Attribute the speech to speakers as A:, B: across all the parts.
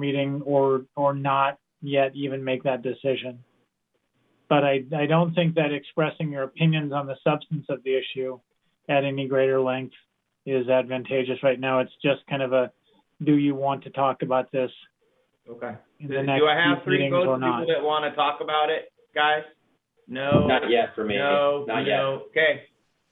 A: meeting or or not yet even make that decision. But I, I don't think that expressing your opinions on the substance of the issue at any greater length is advantageous right now. It's just kind of a do you want to talk about this
B: Okay.
A: in
B: Do
A: the next
B: I have
A: few
B: three
A: meetings
B: votes,
A: or
B: people
A: not?
B: that want to talk about it, guys? No.
C: Not yet for me.
B: No,
C: Not yet.
B: no. Okay,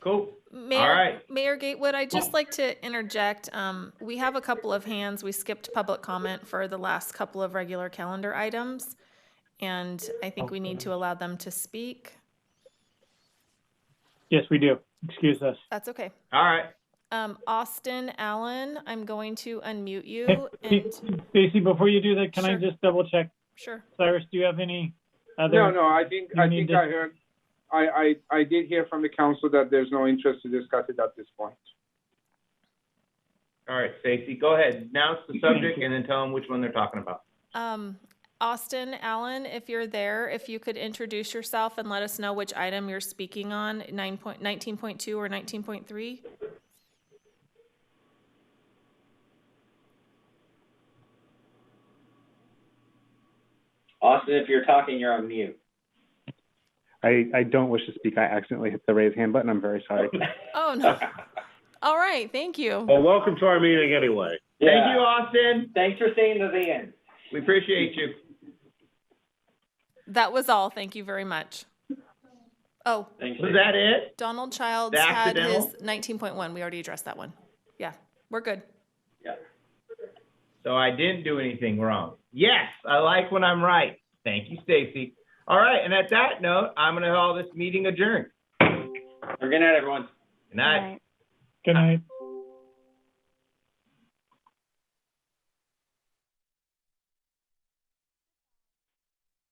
B: cool.
D: Mayor,
B: right.
D: Mayor Gatewood, I'd just like to interject. Um, we have a couple of hands. We skipped public comment for the last couple of regular calendar items. And I think we need to allow them to speak.
A: Yes, we do. Excuse us.
D: That's okay.
B: All right.
D: Um, Austin Allen, I'm going to unmute you and,
A: Stacy, before you do that, can I
D: Sure.
A: just double check?
D: sure.
A: Cyrus, do you have any other?
E: No, no, I think,
A: you
E: I
A: need
E: think
A: to-
E: I heard, I, I, I did hear from the council that there's no interest to discuss it at this point.
B: All right, Stacy, go ahead. Announce the subject and then tell them which one they're talking about.
D: Um, Austin Allen, if you're there, if you could introduce yourself and let us know which item you're speaking on, nine point, nineteen point two or nineteen point three?
C: Austin, if you're talking, you're on mute.
F: I, I don't wish to speak. I accidentally hit the raise hand button. I'm very sorry.
D: Oh, no. All right, thank you.
G: Well, welcome to our meeting anyway.
B: Thank you, Austin.
C: Thanks for staying to the end.
B: We appreciate you.
D: That was all. Thank you very much. Oh,
C: Thanks.
B: Was that it?
D: Donald Childs
B: The
D: had his
B: accidental?
D: 19.1. We already addressed that one. Yeah, we're good.
B: So I didn't do anything wrong. Yes, I like when I'm right. Thank you, Stacy. All right, and at that note, I'm going to call this meeting adjourned.
C: Good night, everyone.
B: Good night.
A: Good night.